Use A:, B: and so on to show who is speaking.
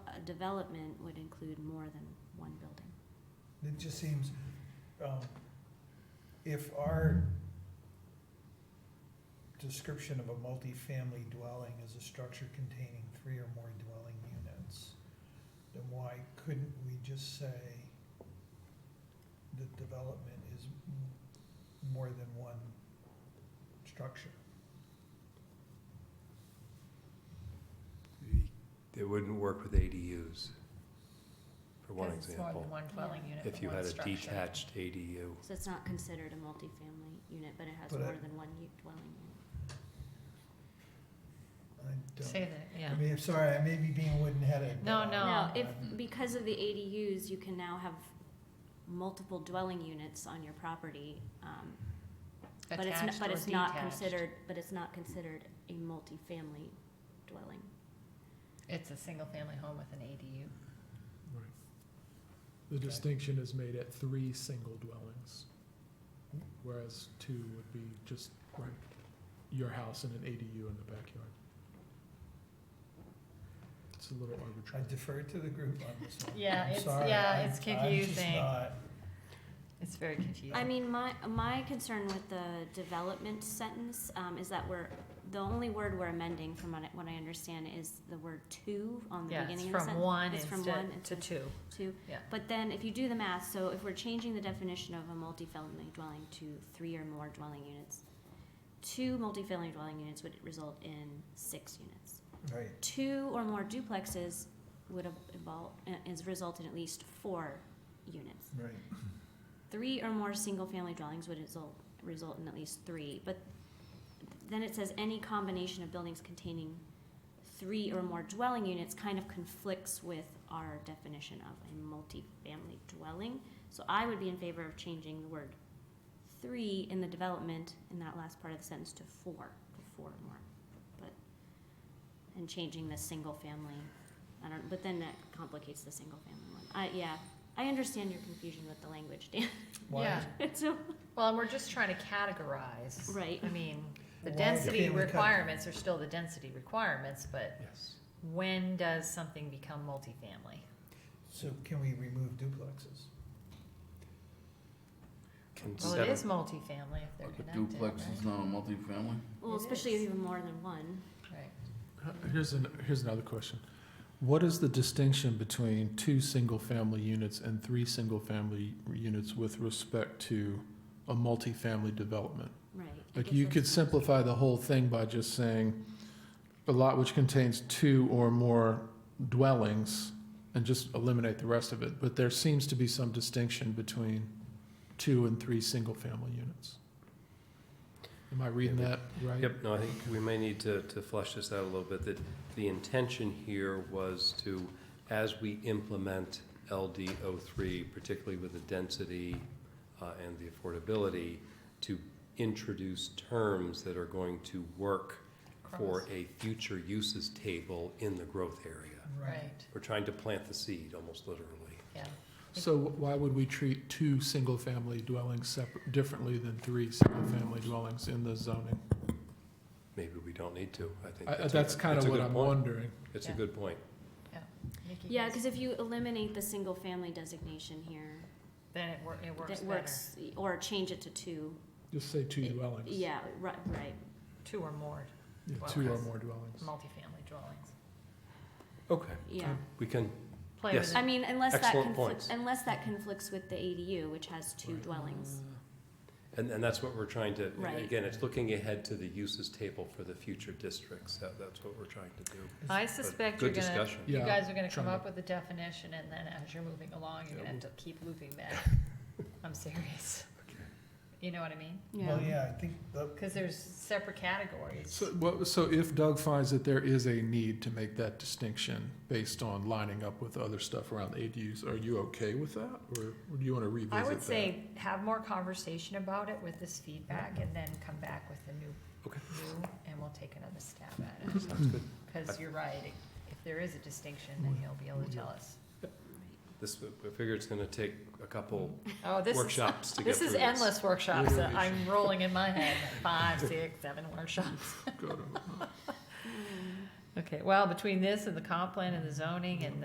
A: development would include more than one building.
B: It just seems, um, if our description of a multifamily dwelling is a structure containing three or more dwelling units, then why couldn't we just say the development is m- more than one structure?
C: It wouldn't work with ADUs, for one
D: Because it's more
C: example.
D: than one dwelling unit
C: If
D: and
C: you
D: one
C: had a
D: structure.
C: detached ADU,
A: So it's not considered a multifamily unit, but it has
B: But I-
A: more than one u- dwelling unit.
B: I
D: Say
B: don't,
D: that,
B: I
D: yeah.
B: mean, I'm sorry, I may be being wooden-headed. but
D: No,
B: I'm-
D: no.
A: No,
D: Oh.
A: if,
B: I'm-
A: because of the ADUs, you can now have multiple dwelling units on your property, um, but it's,
D: Attached
A: not- but
D: or
A: it's not
D: detached.
A: considered, but it's not considered a multifamily dwelling.
D: It's a single-family home with an ADU.
E: The
B: Okay.
E: distinction is made at three single dwellings, whereas two would be just right, your house and an ADU in the backyard. It's a little
B: I
E: arbitrary.
B: defer to the group on this one.
D: Yeah,
B: I'm
D: it's-
B: sorry,
D: yeah,
B: I'm-
D: it's
B: I'm just
D: confusing.
B: not,
D: It's very confusing.
A: I mean, my, my concern with the development sentence, um, is that we're, the only word we're amending from what I, what I understand is the word to on the
D: Yeah,
A: beginning
D: it's
A: of the sentence.
D: from one
A: It's from one
D: instead to
A: instead of
D: two.
A: two.
D: Yeah.
A: But then if you do the math, so if we're changing the definition of a multifamily dwelling to three or more dwelling units, two multifamily dwelling units would result in six units
B: right.
A: two or more duplexes would have involved, is result in at least four units.
B: Right.
A: Three or more single-family dwellings would result, result in at least three, but then it says any combination of buildings containing three or more dwelling units kind of conflicts with our definition of a multifamily dwelling. So I would be in favor of changing the word three in the development in that last part of the sentence to four, to four or more. But, and changing the single family, I don't, but then that complicates the single family one. I, yeah, I understand your confusion with the language, Dan.
B: Why-
D: Yeah.
A: It's a-
D: Well, and we're just trying to categorize.
A: Right.
D: I mean, the
B: Why
D: density
B: can't we cut-
D: requirements are still the density requirements, but
C: yes.
D: when does something become multifamily?
B: So can we remove duplexes?
C: Can
D: Well, it
C: seven,
D: is multifamily if they're
F: Like a
D: connected, right?
F: duplex is not a multifamily?
A: well,
D: It
A: especially if
D: is.
A: you have more than one.
D: Right.
E: Here's an, here's another question. What is the distinction between two single-family units and three single-family units with respect to a multifamily development?
A: Right. I
E: Like
A: guess
E: you
A: that's-
E: could simplify the whole thing by just saying a lot which contains two or more dwellings and just eliminate the rest of it. But there seems to be some distinction between two and three single-family units. Am I reading
C: Yeah,
E: that right?
C: Yep, no, I think we may need to, to flesh this out a little bit, that the intention here was to, as we implement LD O three, particularly with the density, uh, and the affordability, to introduce terms that are going to work for a future uses table in the growth area.
D: Right,
C: We're trying to plant the seed, almost literally.
D: yeah.
E: So why would we treat two single-family dwellings separate, differently than three single-family dwellings in the zoning?
C: Maybe we don't need to, I think.
E: I,
C: a-
E: that's kind
C: it's
E: of
C: a
E: what
C: good
E: I'm
C: point.
E: wondering.
C: It's a
D: Yeah.
C: good point.
D: Nikki,
A: Yeah,
D: yes.
A: because if you eliminate the single family designation here,
D: Then it wor- it works
A: that
D: better.
A: works, or change it to two.
E: Just say two
A: Y-
E: dwellings.
A: Yeah, right, right.
D: Two or more
E: Yeah, Two or
D: dwellings.
E: more dwellings.
D: multifamily dwellings.
C: Okay,
A: Yeah.
C: we can,
D: Play
C: Yes.
D: with it.
A: I mean, unless that
C: Excellent
A: conflicts,
C: points.
A: unless that conflicts with the ADU, which has two
C: Right.
A: dwellings.
C: and, and that's what we're trying to,
A: Right.
C: again, it's looking ahead to the uses table for the future districts. That, that's what we're trying to do.
D: I
C: But
D: suspect you're
C: Good
D: gonna,
C: discussion.
D: you
E: Yeah,
D: guys are gonna come
E: trying to-
D: up with a definition and then as you're moving along, you're
C: Yeah,
D: gonna have to keep looping back. I'm serious.
C: Okay.
D: You know what I mean?
A: Yeah.
B: Well, yeah, I think the,
D: Cause there's separate categories.
E: So, what so if Doug finds that there is a need to make that distinction based on lining up with other stuff around ADUs, are you okay with that, or do you want to revisit
D: I
E: that?
D: would say have more conversation about it with this feedback and then come back with a new,
C: Okay.
D: new, and we'll take another stab at it.
C: Sounds good.
D: Cause you're right, if there is a distinction, then you'll be able to tell us.
C: This, I figure it's gonna take a couple
D: Oh, this is
C: workshops to get
D: This
C: through
D: is
C: this.
D: endless workshops.
E: Literally.
D: I'm rolling in my head, five, six, seven workshops.
E: Go to-
D: Okay, well, between this and the comp plan and the zoning and